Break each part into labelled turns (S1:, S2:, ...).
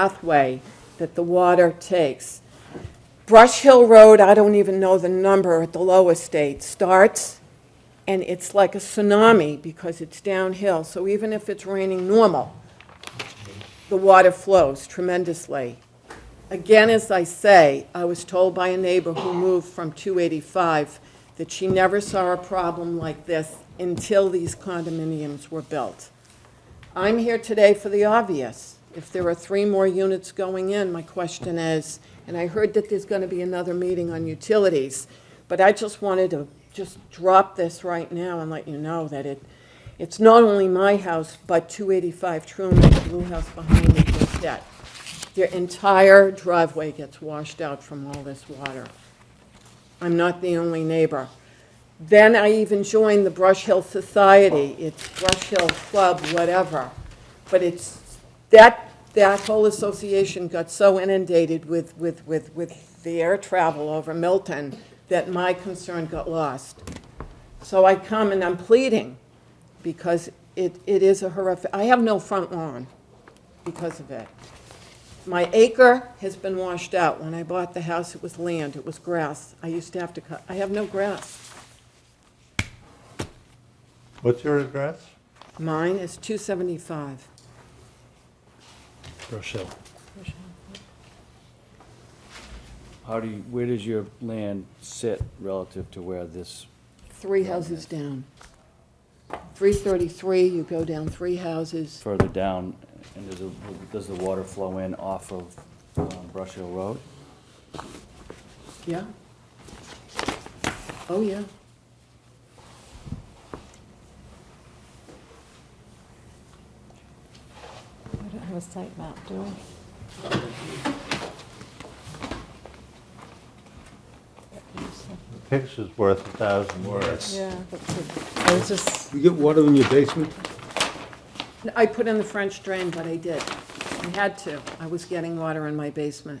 S1: pathway that the water takes. Brush Hill Road, I don't even know the number at the low estate, starts, and it's like a tsunami because it's downhill. So even if it's raining normal, the water flows tremendously. Again, as I say, I was told by a neighbor who moved from 285 that she never saw a problem like this until these condominiums were built. I'm here today for the obvious. If there are three more units going in, my question is, and I heard that there's going to be another meeting on utilities, but I just wanted to just drop this right now and let you know that it, it's not only my house, but 285 Truman, the blue house behind me, was dead. Their entire driveway gets washed out from all this water. I'm not the only neighbor. Then I even joined the Brush Hill Society, it's Brush Hill Club, whatever. But it's, that, that whole association got so inundated with, with, with, with the air travel over Milton that my concern got lost. So I come and I'm pleading because it, it is a horrific, I have no front lawn because of it. My acre has been washed out. When I bought the house, it was land, it was grass. I used to have to cut, I have no grass.
S2: What's your address?
S1: Mine is 275.
S3: Brush Hill.
S4: How do you, where does your land sit relative to where this,
S1: Three houses down. 333, you go down three houses.
S4: further down, and does, the- does the water flow in off of um, Brush Hill Road?
S1: Yeah. Oh, yeah.
S5: We don't have a site map, do we?
S2: The picture's worth a thousand words.
S5: Yeah, that's good. I was just,
S3: You get water in your basement?
S1: I put in the French drain, but I did. I had to. I was getting water in my basement.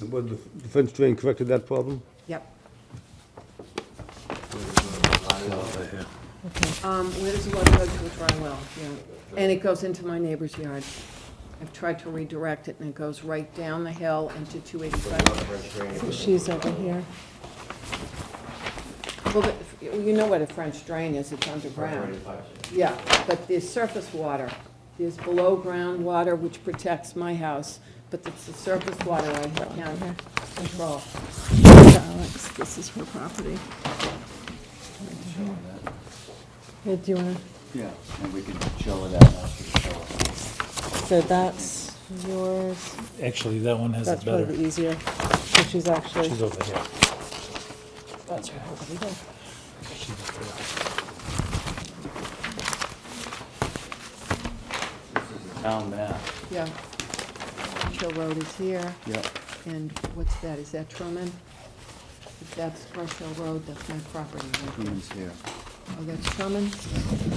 S3: And what, the fence drain corrected that problem?
S1: Yep.
S5: okay,
S1: Um, where does the water go to a dry well? Yeah, and it goes into my neighbor's yard. I've tried to redirect it, and it goes right down the hill into 285.
S5: so she's over here.
S1: Well, the- you know what a French drain is, it's underground. Yeah, but there's surface water. There's below-ground water, which protects my house, but it's the surface water I can't control.
S5: Alex, this is her property. Yeah, do you wanna,
S4: Yeah. And we can show it out after the show.
S5: so that's yours,
S6: Actually, that one has
S5: that's
S6: it
S5: probably
S6: better.
S5: the easier, so she's actually,
S6: She's over here.
S5: that's her property there.
S6: She's over here.
S4: Town map.
S1: Yeah. Hill Road is here,
S4: Yep.
S1: and what's that, is that Truman? If that's Brush Hill Road, that's my property right there.
S4: Truman's here.
S1: Oh, that's Drummond?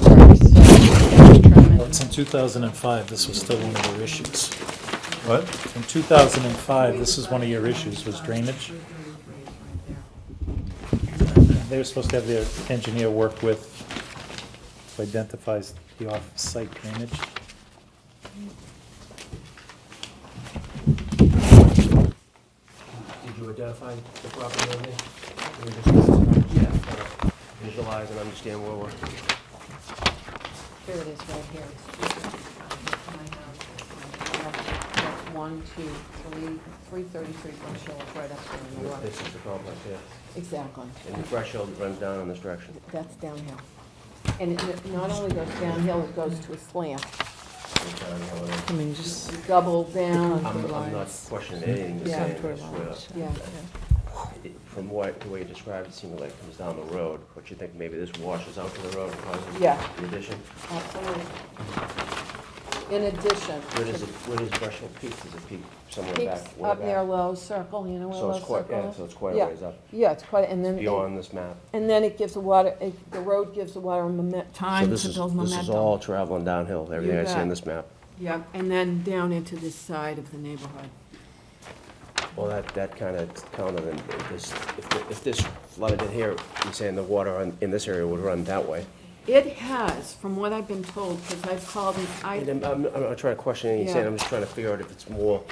S1: Drummond.
S6: Since 2005, this was still one of your issues.
S2: What?
S6: In 2005, this is one of your issues, was drainage. They were supposed to have their engineer work with, who identifies the off-site drainage.
S7: Did you identify the property owner? Or you just- Visualize and understand where we're.
S1: Here it is, right here. That's One, two, three, three thirty-three Brush Hill, it's right up there in New York.
S7: This is the complex, yeah.
S1: Exactly,
S7: And the threshold runs down in this direction.
S1: that's downhill. And it not only goes downhill, it goes to a slant.
S5: I mean, just,
S1: You double down.
S7: I'm, I'm not questioning anything you're
S1: Yeah.
S7: saying, I swear.
S5: Lodge.
S1: Yeah,
S7: It- From what, the way you described, it seemed like it comes down the road, but you think maybe this washes out to the road and causes
S1: Yeah.
S7: the addition?
S1: absolutely. In addition.
S7: Where does it, where does Brushhill peak? Does it peak somewhere
S1: Peaks
S7: back, way
S1: up near
S7: back?
S1: Low Circle, you know where
S7: So
S1: Low
S7: it's quite,
S1: Circle
S7: yeah,
S1: is?
S7: so it's quite a
S1: Yeah.
S7: ways up,
S1: Yeah, it's quite, and then. it-
S7: beyond this map.
S1: And then it gives the water, it- the road gives the water momen-
S7: So
S1: time
S7: this
S1: to
S7: is,
S1: build
S7: this is
S1: momentum.
S7: all traveling downhill, everything I see
S1: bet.
S7: on this map.
S1: Yeah, and then down into this side of the neighborhood.
S7: Well, that, that kind of counted, and if this, if- if this flooded in here, you're saying the water on- in this area would run that way.
S1: It has, from what I've been told, because I've called and I,
S7: um, And I'm, I'm I'm not trying to question anything you're saying,
S1: Yeah.
S7: I'm just trying to figure out if it's more